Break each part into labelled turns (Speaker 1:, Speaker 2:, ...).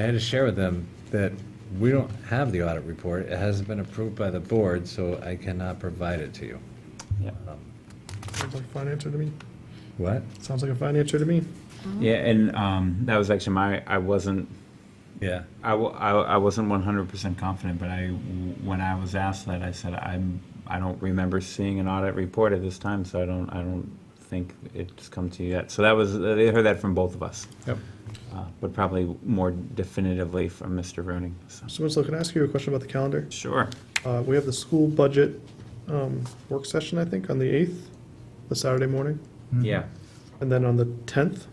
Speaker 1: I had to share with them that we don't have the audit report. It hasn't been approved by the board, so I cannot provide it to you.
Speaker 2: Yeah.
Speaker 3: Sounds like a fine answer to me.
Speaker 1: What?
Speaker 3: Sounds like a fine answer to me.
Speaker 2: Yeah, and um, that was actually my, I wasn't,
Speaker 1: Yeah.
Speaker 2: I, wa- I, I wasn't one hundred percent confident, but I, when I was asked that, I said, I'm, I don't remember seeing an audit report at this time, so I don't, I don't think it's come to you yet. So that was, they heard that from both of us,
Speaker 3: Yep.
Speaker 2: uh, but probably more definitively from Mr. Roning, so.
Speaker 3: So Winslow, can I ask you a question about the calendar?
Speaker 2: Sure.
Speaker 3: Uh, we have the school budget, um, work session, I think, on the eighth, the Saturday morning,
Speaker 2: Yeah.
Speaker 3: and then on the tenth.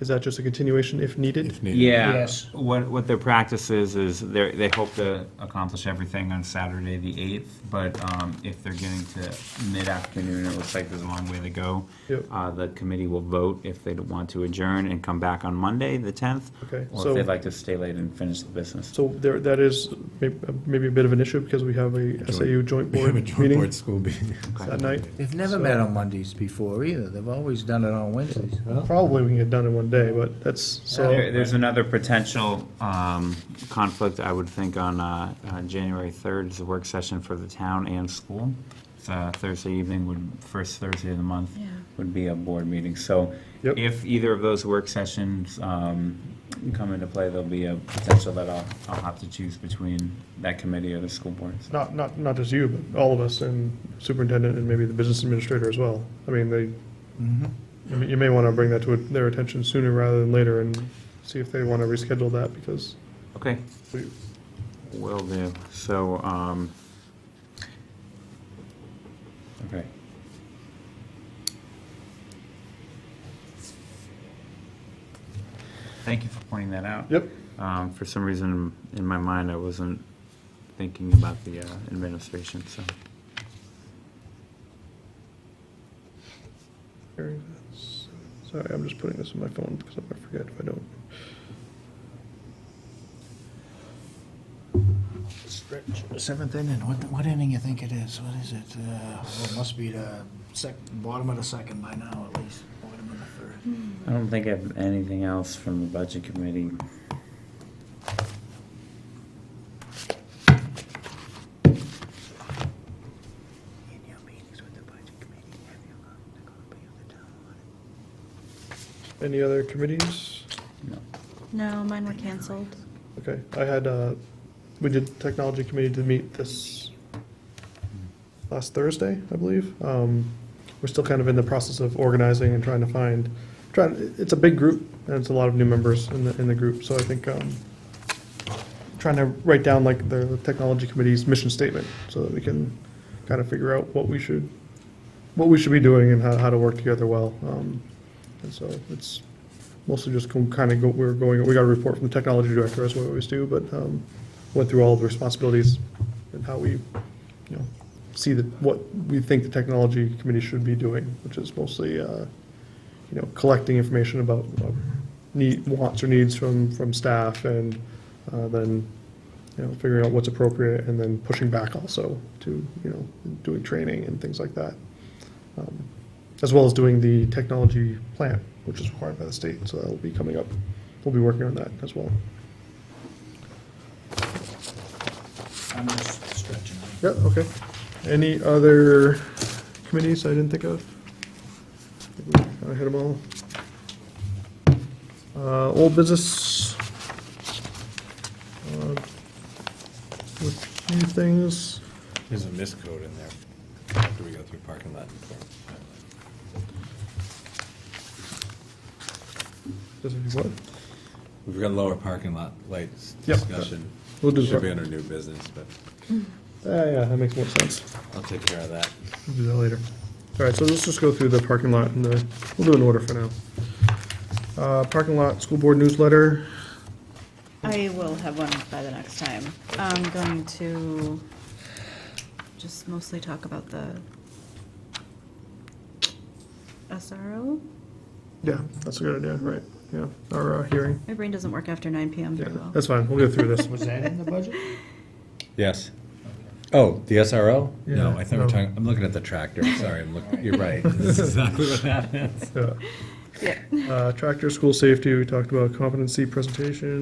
Speaker 3: Is that just a continuation if needed?
Speaker 4: if needed.
Speaker 2: Yeah,
Speaker 5: Yes.
Speaker 2: what, what their practice is, is they're, they hope to accomplish everything on Saturday, the eighth, but, um, if they're getting to mid-afternoon, it looks like there's a long way to go.
Speaker 3: Yep.
Speaker 2: Uh, the committee will vote if they want to adjourn and come back on Monday, the tenth.
Speaker 3: Okay,
Speaker 2: Or
Speaker 3: so-
Speaker 2: if they'd like to stay late and finish the business.
Speaker 3: So there, that is may- uh, maybe a bit of an issue because we have a SAU joint
Speaker 4: We have
Speaker 3: board
Speaker 4: a joint
Speaker 3: meeting
Speaker 4: board school meeting.
Speaker 3: that night.
Speaker 5: They've never met on Mondays before either. They've always done it on Wednesdays.
Speaker 3: Probably we can get done in one day, but that's,
Speaker 2: There,
Speaker 3: so,
Speaker 2: there's another potential, um, conflict, I would think, on, uh, uh, January third is the work session for the town and school. It's, uh, Thursday evening would, first Thursday of the month would be a board meeting, so
Speaker 3: Yep.
Speaker 2: if either of those work sessions, um, come into play, there'll be a potential that I'll, I'll have to choose between that committee or the school board. So,
Speaker 3: not, not, not just you, but all of us and superintendent and maybe the business administrator as well. I mean, they,
Speaker 5: Mm-hmm.
Speaker 3: I mean, you may want to bring that to their attention sooner rather than later and see if they want to reschedule that because
Speaker 2: Okay,
Speaker 3: we,
Speaker 2: will do, so, um, okay. Thank you for pointing that out.
Speaker 3: yep,
Speaker 2: Um, For some reason, in my mind, I wasn't thinking about the uh, administration, so.
Speaker 3: Sorry, I'm just putting this in my phone because I'm gonna forget if I don't.
Speaker 5: Seventh inning, what, what inning you think it is? What is it? Uh, well, it must be the sec, bottom of the second by now at least, bottom of the third.
Speaker 2: I don't think I have anything else from the budget committee.
Speaker 5: In your meetings with the budget committee, have you gotten a copy of the town audit?
Speaker 3: Any other committees?
Speaker 2: No.
Speaker 6: No, mine were canceled.
Speaker 3: Okay, I had, uh, we did technology committee to meet this last Thursday, I believe. Um, We're still kind of in the process of organizing and trying to find, trying, it's a big group, and it's a lot of new members in the, in the group, so I think, um, trying to write down like the technology committee's mission statement, so that we can kind of figure out what we should, what we should be doing and how, how to work together well. Um, And so it's mostly just kind of go, we're going, we got a report from the technology director, as we always do, but um, went through all the responsibilities and how we, you know, see that, what we think the technology committee should be doing, which is mostly, uh, you know, collecting information about uh, need, wants or needs from, from staff and uh, then, you know, figuring out what's appropriate and then pushing back also to, you know, doing training and things like that um, as well as doing the technology plan, which is required by the state, so that'll be coming up. We'll be working on that as well.
Speaker 5: I'm just stretching. it.
Speaker 3: Yeah, okay. Any other committees I didn't think of? I hit them all. Uh, old business. Uh, A few things.
Speaker 4: There's a miscode in there after we go through parking lot.
Speaker 3: Does it- what?
Speaker 4: We've got lower parking lot lights
Speaker 3: Yep.
Speaker 4: discussion.
Speaker 3: We'll do
Speaker 4: Should be
Speaker 3: that.
Speaker 4: under new business, but
Speaker 3: Ah, yeah, that makes more sense.
Speaker 4: I'll take care of that.
Speaker 3: We'll do that later. All right, so let's just go through the parking lot and the, we'll do an order for now. Uh, Parking lot, school board newsletter.
Speaker 6: I will have one by the next time. I'm going to just mostly talk about the SRO.
Speaker 3: Yeah, that's a good idea, right, yeah, our uh, hearing.
Speaker 6: My brain doesn't work after 9 PM
Speaker 3: Yeah,
Speaker 6: very well.
Speaker 3: that's fine, we'll get through this.
Speaker 5: Was that in the budget?
Speaker 1: Yes. Oh, the SRO? No,
Speaker 3: Yeah,
Speaker 1: I think we're
Speaker 3: no.
Speaker 1: talking, I'm looking at the tractor. Sorry, I'm looking, you're right. That's exactly what that is.
Speaker 3: Yeah.
Speaker 6: Yeah.
Speaker 3: Uh, Tractor, school safety, we talked about competency presentation.